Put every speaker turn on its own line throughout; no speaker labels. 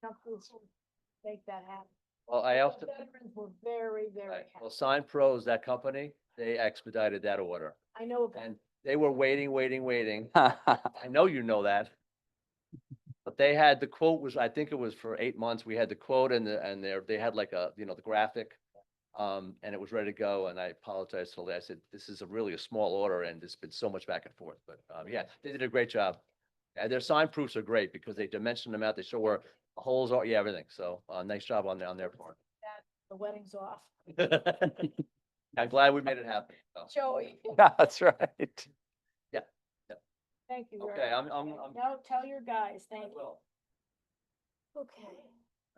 council will make that happen.
Well, I
But
also,
the Veterans were very, very
I- well,
happy.
Sign Pros, that company, they expedited that order.
I know about
And they were waiting, waiting, waiting.
Wow.
I know you know that. But they had, the quote was, I think it was for eight months, we had the quote and the, and there, they had like a, you know, the graphic. Um, and it was ready to go, and I apologized to Lee, I said, this is a really a small order, and there's been so much back and forth, but, um, yeah, they did a great job. And their sign proofs are great, because they dimension them out, they show where holes are, yeah, everything, so, uh, nice job on, on their part.
the weddings off.
I'm glad we made it happen, so.
Joey,
That's right.
thank you. very
Okay,
much.
I'm, I'm, I'm.
No, tell your guys, thank you.
Well,
Okay.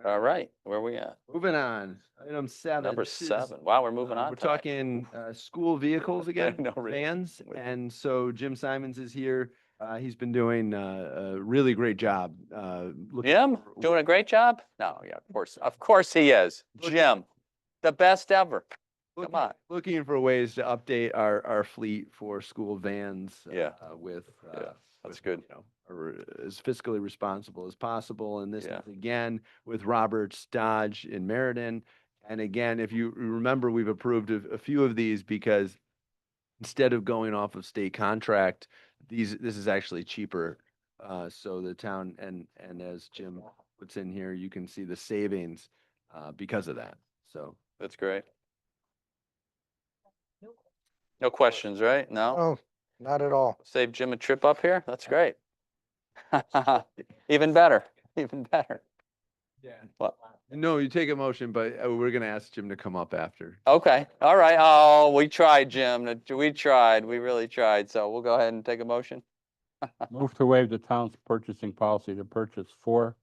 All right, where we at?
Moving on, item seven.
Number
this is,
seven. Wow, we're moving
uh,
on.
We're
tonight.
talking uh, school vehicles again,
No, really.
vans.
With-
And so Jim Simons is here. Uh, He's been doing uh, a really great job. uh, looking
Jim,
for-
doing a great job? No, yeah, of course, of course he is. Jim, the best ever.
looking-
on.
Looking for ways to update our, our fleet for school vans.
Yeah.
uh, With.
Yeah,
uh,
that's
with,
good.
you know, a re- As fiscally responsible as possible. And this
Yeah.
is again with Roberts Dodge in Meriden. And again, if you remember, we've approved of a few of these because instead of going off of state contract, these, this is actually cheaper. Uh, so the town and, and as Jim puts in here, you can see the savings, uh, because of that. So.
That's great.
Nope.
No questions, right? No?
Oh, not at all.
Save Jim a trip up here? That's great. Even better, even better.
Yeah.
What?
No, you take a motion, but uh, we're gonna ask Jim to come up after.
Okay, all right. Oh, we tried, Jim. That- We tried, we really tried. So we'll go ahead and take a motion.
Move to waive the town's purchasing policy to purchase four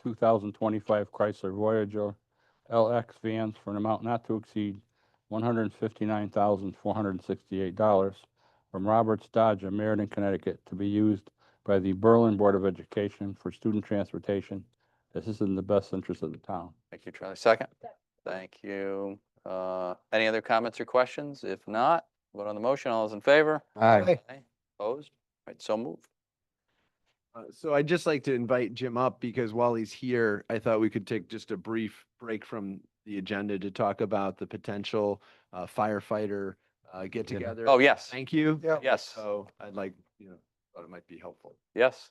two thousand twenty-five Chrysler Voyager LX vans for an amount not to exceed one hundred and fifty-nine thousand four hundred and sixty-eight dollars from Roberts Dodge of Meriden, Connecticut, to be used by the Berlin Board of Education for student transportation. This is in the best interest of the town.
Thank you, Charlie. Second?
Second.
Thank you. Uh, Any other comments or questions? If not, vote on the motion. All those in favor?
Aye.
Aye. Opposed? All right, so moved.
Uh, So I'd just like to invite Jim up because while he's here, I thought we could take just a brief break from the agenda to talk about the potential uh, firefighter uh, get together.
Oh, yes,
Thank you.
Yeah.
yes,
So I'd like, you know, thought it might be helpful.
yes.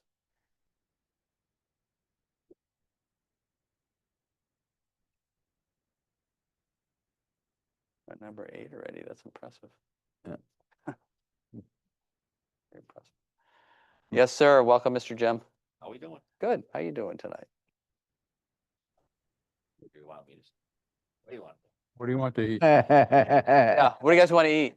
At number eight already, that's impressive.
Yeah.
Very impressive. Yes, sir. Welcome, Mr. Jim.
How we doing?
Good. How you doing tonight?
What do you want me to? What do you want?
What do you want to eat?
Yeah, what do you guys want to eat?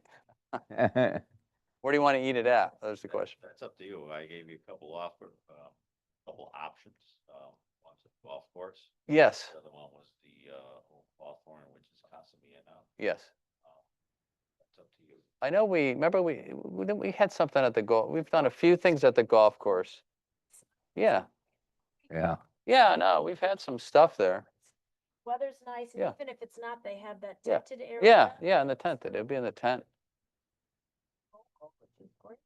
Where do you want to eat it at? That's the question.
That's up to you. I gave you a couple offer, um, couple options. Um, one's a golf course.
Yes,
The other one was the, uh, old Hawthorne, which is Casamiano.
yes.
That's up to you.
I know we, remember we, we didn't- we had something at the golf, we've done a few things at the golf course. Yeah,
Yeah.
yeah, no, we've had some stuff there.
Weather's nice, and
Yeah.
even if it's not, they have that
Yeah.
tinted area.
Yeah, yeah, in the tent, it'll be in the tent.
Which is great.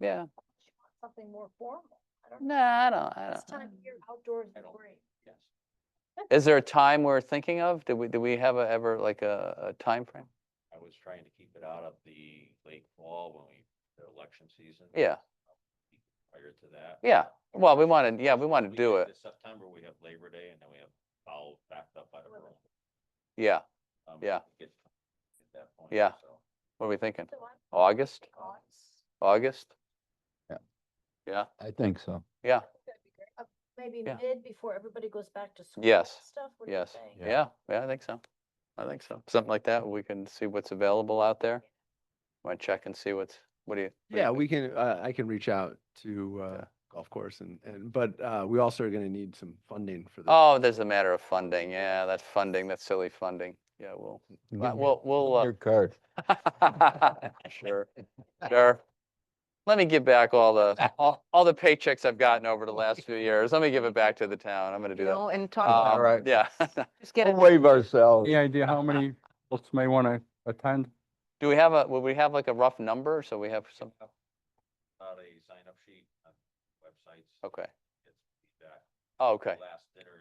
Yeah,
She wants Something more formal. I don't know.
nah, I don't, I
This
don't.
time of year outdoors
I
is
don't-
great.
Yes.
Is there a time we're thinking of? Do we, do we have a, ever like a, a timeframe?
I was trying to keep it out of the late fall when we, the election season.
Yeah,
Prior to that.
yeah. Well, we wanted, yeah, we want
We
to do
did
it.
this September, we have Labor Day and then we have foul backed up by the room.
Yeah,
Um,
Yeah.
Get at that point.
Yeah.
so.
what are we thinking?
So I'm
August,
August.
August?
I think so.
Yeah,
That'd be great. Uh, Maybe
Yeah.
mid before everybody goes back to school. and
Yes.
Stuff, what do you
yes,
think?
yeah, yeah, I think so. I think so. Something like that, we can see what's available out there. Want to check and see what's, what do you? what do you
Yeah,
think?
we can, uh, I can reach out to uh,
Yeah.
golf course and, and, but uh, we also are gonna need some funding for this.
Oh, there's a matter of funding. Yeah, that funding, that silly funding. Yeah, we'll, uh, we'll, we'll, uh,
Your card.
sure, sure. Let me give back all the, all, all the paychecks I've gotten over the last few years. Let me give it back to the town. I'm gonna do
you
that.
know, and
Um,
talk,
all right.
Yeah.
just get
We'll
it.
Waive ourselves.
Any idea how many folks may want to attend?
Do we have a, will we have like a rough number? So we have some,
About a sign up sheet on websites.
okay.
Get some feedback.
Oh, okay.
Last